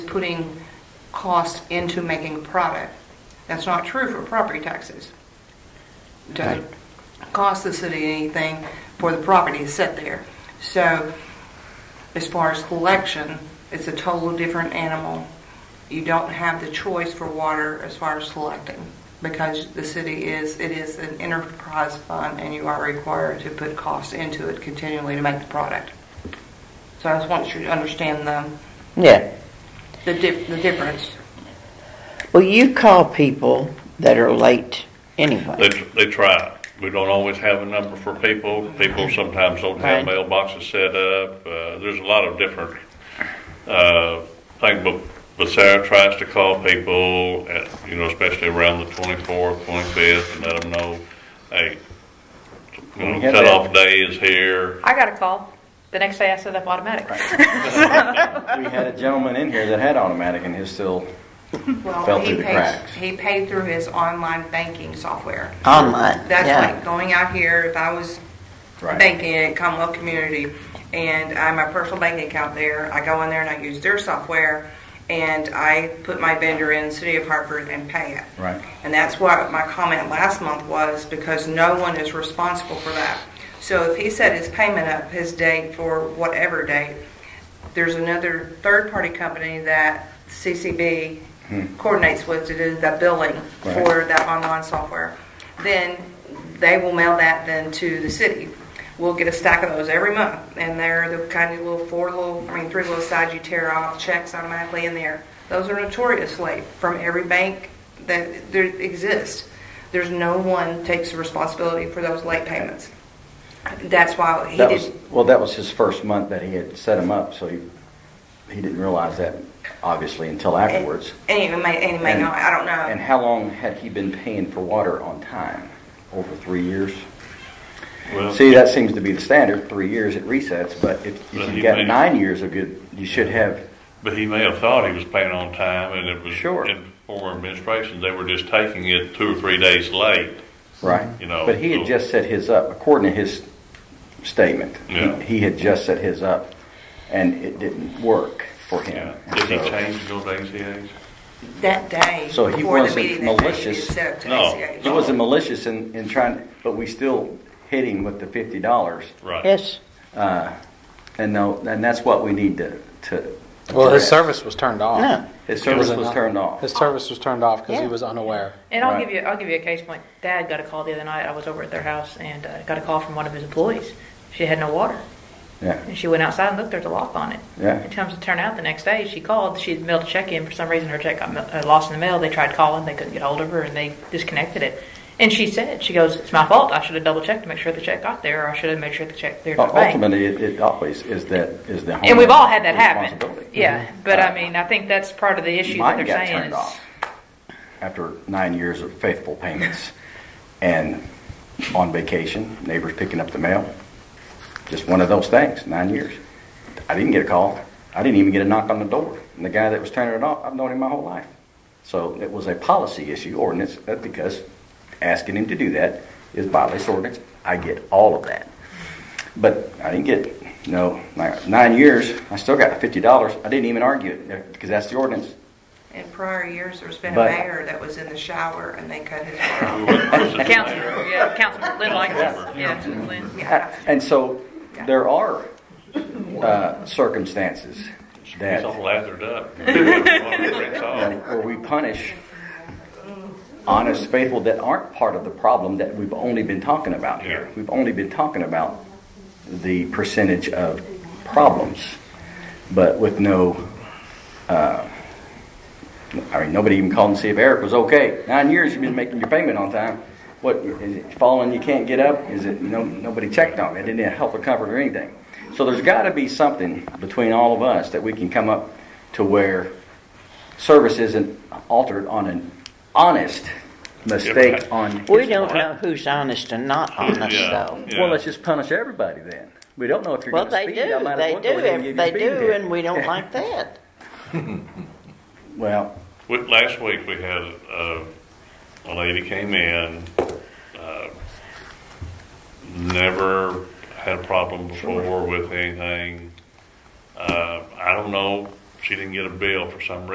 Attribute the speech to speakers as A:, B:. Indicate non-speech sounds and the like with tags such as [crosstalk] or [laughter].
A: putting cost into making product. That's not true for property taxes.
B: Okay.
A: Don't cost the city anything for the property to sit there. So as far as collection, it's a total different animal. You don't have the choice for water as far as selecting because the city is, it is an enterprise fund and you are required to put costs into it continually to make the product. So I just want you to understand the,
B: Yeah.
A: the, dif- the difference.
B: Well, you call people that are late
C: They,
B: anyway.
C: they try. We don't always have a number for people. People sometimes don't have
B: Right.
C: mailboxes set up. Uh, there's a lot of different, uh, things, but, but Sarah tries to call people at, you know, especially around the twenty-fourth, twenty-fifth and let them know, hey, you know,
D: Yeah,
C: cutoff day is here.
E: I got a call. The next day I set up automatic.
D: We had a gentleman in here that had automatic and his still,
A: Well,
D: Fell
A: he
D: through the
A: pays,
D: cracks.
A: he paid through his online banking software.
B: Online,
A: That's
B: yeah.
A: like going out here, if I was
D: Right.
A: banking at Commonwealth Community and I have my personal bank account there, I go in there and I use their software and I put my vendor in City of Hartford and pay it.
D: right?
A: And that's what my comment last month was, because no one is responsible for that. So if he set his payment up, his date for whatever date, there's another third-party company that CCB coordinates with to do the billing for
D: Hmm. Right.
A: that online software. Then they will mail that then to the city. We'll get a stack of those every month, and they're the kind of little four little, I mean, three little sides you tear off, checks automatically in there. Those are notoriously from every bank that there exists. There's no one takes the responsibility for those late payments. That's why he
D: That was,
A: did,
D: well, that was his first month that he had set him up, so he, he didn't realize that, obviously, until afterwards.
A: and he may, and he may
D: And-
A: not, I don't know.
D: And how long had he been paying for water on time? Over three years?
C: Well,
D: See, that seems to be the standard, three years it resets, but if
C: But
D: if
C: he
D: you got
C: may-
D: nine years of good, you should have,
C: But he may have thought he was paying on time and it was.
D: Sure.
C: In former administrations, they were just taking it two or three days late.
D: right?
C: You know,
D: But he
C: so-
D: had just set his up, according to his statement.
C: Yeah.
D: He he had just set his up, and it didn't work for
C: Yeah.
D: him.
C: Did he
D: So-
C: change those ACAs?
A: that day
D: So he
A: before the
D: wasn't
A: meeting that day, he
D: malicious.
A: was set up to
C: No.
A: ACH.
D: He wasn't malicious in, in trying, but we still hit him with the fifty dollars.
C: Right.
B: Yes,
D: Uh, and no, and that's what we need to, to.
F: Well, his
D: address.
F: service was turned off.
B: No.
D: His service
F: it
D: was
F: not?
D: turned off.
F: His service was turned off because
B: Yeah.
F: he was unaware.
E: And I'll
D: Right.
E: give you, I'll give you a case point. Dad got a call the other night. I was over at their house and uh, got a call from one of his employees. She had no water,
D: Yeah,
E: and she went outside and looked. There's a lock on it.
D: Yeah.
E: It comes to turn out the next day. She called. She had mailed a check in. For some reason, her check got mail- uh, lost in the mail. They tried calling. They couldn't get hold of her, and they disconnected it. And she said, "She goes, it's my fault. I should have double checked to make sure the check got there, or I should have made sure the check there to the bank."
D: ultimately, it, it always is that, is the.
E: And we've all had that
D: homeowner's
E: happen.
D: responsibility. Uh,
E: Yeah, but I mean, I think that's part of the issue that
D: Mine
E: they're
D: got
E: saying
D: turned
E: is.
D: off after nine years of faithful payments and on vacation, neighbors picking up the mail. Just one of those things, nine years. I didn't get a call. I didn't even get a knock on the door. And the guy that was turning it off, I've known him my whole life. So it was a policy issue, ordinance, uh, because asking him to do that is violates ordinance. I get all of that. But I didn't get, it. no, like, nine years, I still got $50. I didn't even argue it uh, because that's the ordinance.
A: In prior years, there's been a
D: But-
A: mayor that was in the shower and they cut his hair off.
E: Councilman, yeah, Councilman Lynn likes that. Yeah, Lynn.
A: Yeah.
D: [laughs] And so there are uh, circumstances
C: He's
D: that
C: all lathered up. [laughs] It's all-
D: where we punish honest, faithful that aren't part of the problem that we've only been talking about here.
C: Yeah.
D: We've only been talking about the percentage of problems, but with no, uh, I mean, nobody even called and see if Eric was okay. Nine years you've been making your payment on time. What is it falling? You can't get up? Is it no? Nobody checked on it. Didn't help or comfort or anything. So there's got to be something between all of us that we can come up to where service isn't altered on an honest mistake on.
B: we don't know who's honest and not honest
C: Yeah.
B: though.
C: Yeah.
D: Well, let's just punish everybody then. We don't know if you're
B: Well,
D: going to
B: they do,
D: speed. I might as
B: they
D: well go ahead and
B: do,
D: give you a
B: they
D: speeding
B: do,
D: ticket.
B: and we don't like that.
D: [laughs] Well,
C: We- Last week, we had, uh, a lady came in, uh, never had a problem before with anything. Uh, I don't know she didn't get a bill for some reason.